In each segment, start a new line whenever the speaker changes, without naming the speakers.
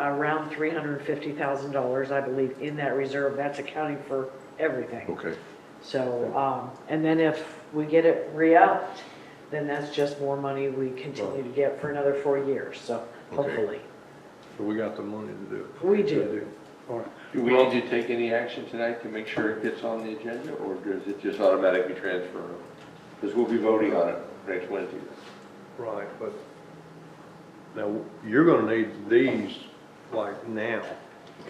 around $350,000, I believe, in that reserve. That's accounting for everything.
Okay,
So, um, and then if we get it re-upped, then that's just more money we continue to get for another four years, so hopefully.
so we got the money to do it.
We do.
All right.
Do we need to take any action tonight to make sure it gets on the agenda, or does it just automatically transfer? Because we'll be voting on it next Wednesday.
Right, but now, you're gonna need these like now.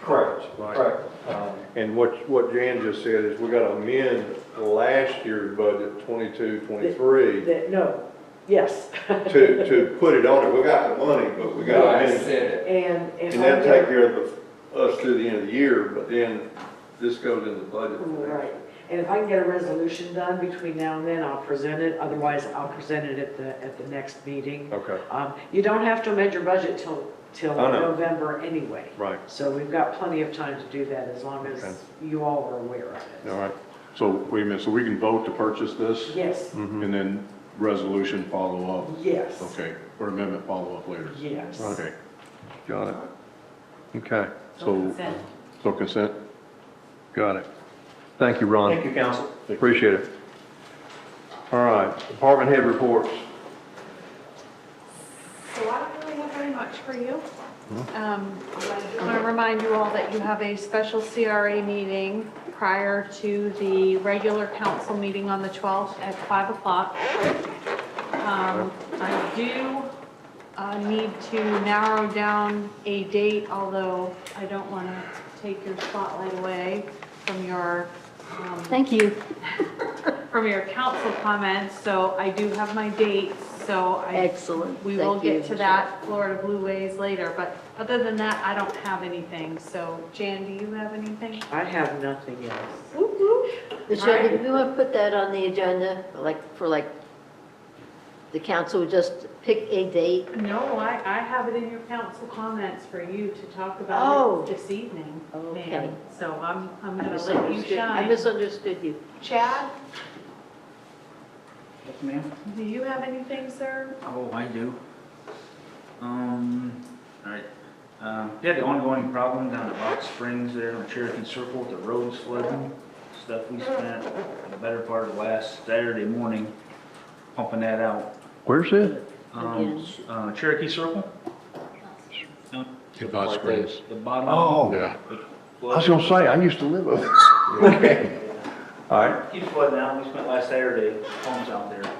Correct,
Right.
correct. Um,
And what, what Jan just said is we gotta amend last year's budget, twenty-two, twenty-three,
That- No, yes.
to, to put it on it. We got the money, but we gotta
I
amend it.
said it.
And if
And
I
that'll take
get-
care of the- us through the end of the year, but then this goes in the budget.
Right, and if I can get a resolution done between now and then, I'll present it, otherwise I'll present it at the, at the next meeting.
Okay,
Um, you don't have to amend your budget till, till
I know.
November anyway.
right,
So we've got plenty of time to do that as long
Okay.
as you all are aware of it.
All right, so wait a minute, so we can vote to purchase this?
Yes,
Mm-hmm.
And then resolution follow up?
yes.
Okay, or amendment follow up later?
Yes.
Okay,
got it. Okay,
so, so consent?
got it. Thank you, Ron.
Thank you, council.
Appreciate it. All right, department head reports.
So I don't really have very much for you. Um, I want to remind you all that you have a special CRA meeting prior to the regular council meeting on the 12th at 5 o'clock. Um, I do uh, need to narrow down a date, although I don't want to take your spotlight away from your um,
Thank you.
from your council comments, so I do have my dates, so I.
Excellent.
We will
Thank you,
get to that Florida Blue Ways later, but other than that, I don't have anything, so Jan, do you have anything?
I have nothing else.
Whoop, whoop.
Michelle,
Alright.
if you want to put that on the agenda, like, for like, the council would just pick a date?
No, I, I have it in your council comments for you to talk
Oh.
about it this evening,
Okay.
ma'am, so I'm, I'm
I
gonna let you
misunderstood. I
shine.
misunderstood you.
Chad,
Yes, ma'am.
do you have anything, sir?
Oh, I do. Um, all right. Um, we had the ongoing problem down at Rock Springs there on Cherokee Circle, the roads flooding. Stuff we spent the better part of last Saturday morning pumping that out.
Where's it?
Um,
Again.
uh, Cherokee Circle,
Hot Springs.
the bottom.
Oh,
Yeah,
I was gonna say, I used to live over there. Okay. All right,
Keeps flooding out. We spent last Saturday, homes out there,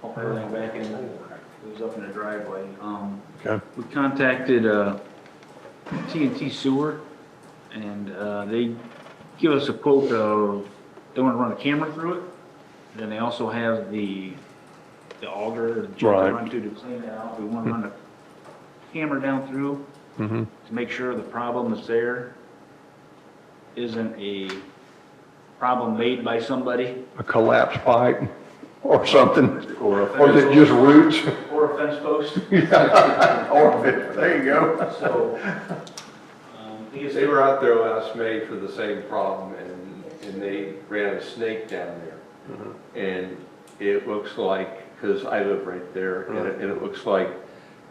pumping everything back in. It was up in the driveway. Um,
okay.
We contacted uh, TNT Sewer, and uh, they give us a quote of, they want to run a camera through it. Then they also have the, the auger, the jet to
Right.
run to to clean it out. We want to run a camera down through
Mm-hmm.
to make sure the problem that's there isn't a problem made by somebody
a collapsed pipe or something,
or a
or is it just roots?
or a fence post.
Or, there you go.
So, um, I think it's-
They were out there last May for the same problem, and, and they ran a snake down there. And it looks like, because I live right there, and it, and it looks like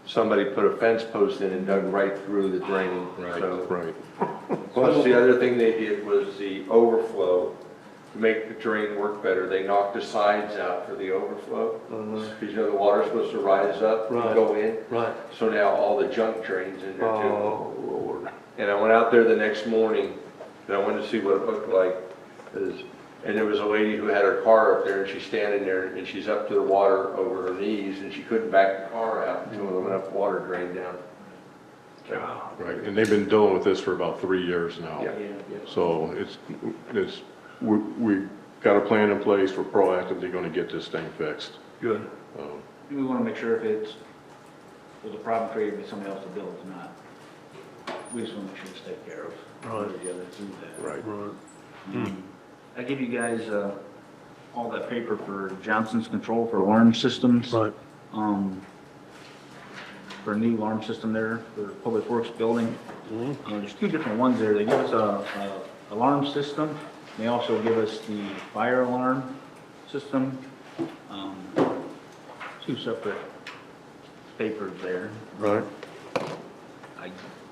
somebody put a fence post in and dug right through the drain. So-
Right.
Plus, the other thing they did was the overflow, to make the drain work better, they knocked the sides out for the overflow. Because you know, the water's supposed to rise up and
Mm-hmm. Right.
go in,
Right.
so now all the junk drains in there too.
Oh, Lord.
And I went out there the next morning, and I wanted to see what it looked like, 'cause- and there was a lady who had her car up there, and she's standing there, and she's up to the water over her knees, and she couldn't back the car out until enough water drained down.
Right, and they've been dealing with this for about three years now.
Yeah.
So it's, it's, we, we got a plan in place, we're proactively gonna get this thing fixed.
Good.
Um,
We want to make sure if it's, was a problem created by somebody else to build, it's not. We just want to make sure it's taken care of.
Right.
Or the other through that.
Right,
Right.
Um, I give you guys, uh, all that paper for Johnson's Control for alarm systems.
Right.
Um, for a new alarm system there for the Public Works Building. Uh, there's two different ones there. They give us a, a alarm system. They also give us the fire alarm system. Um, two separate papers there.
Right.
I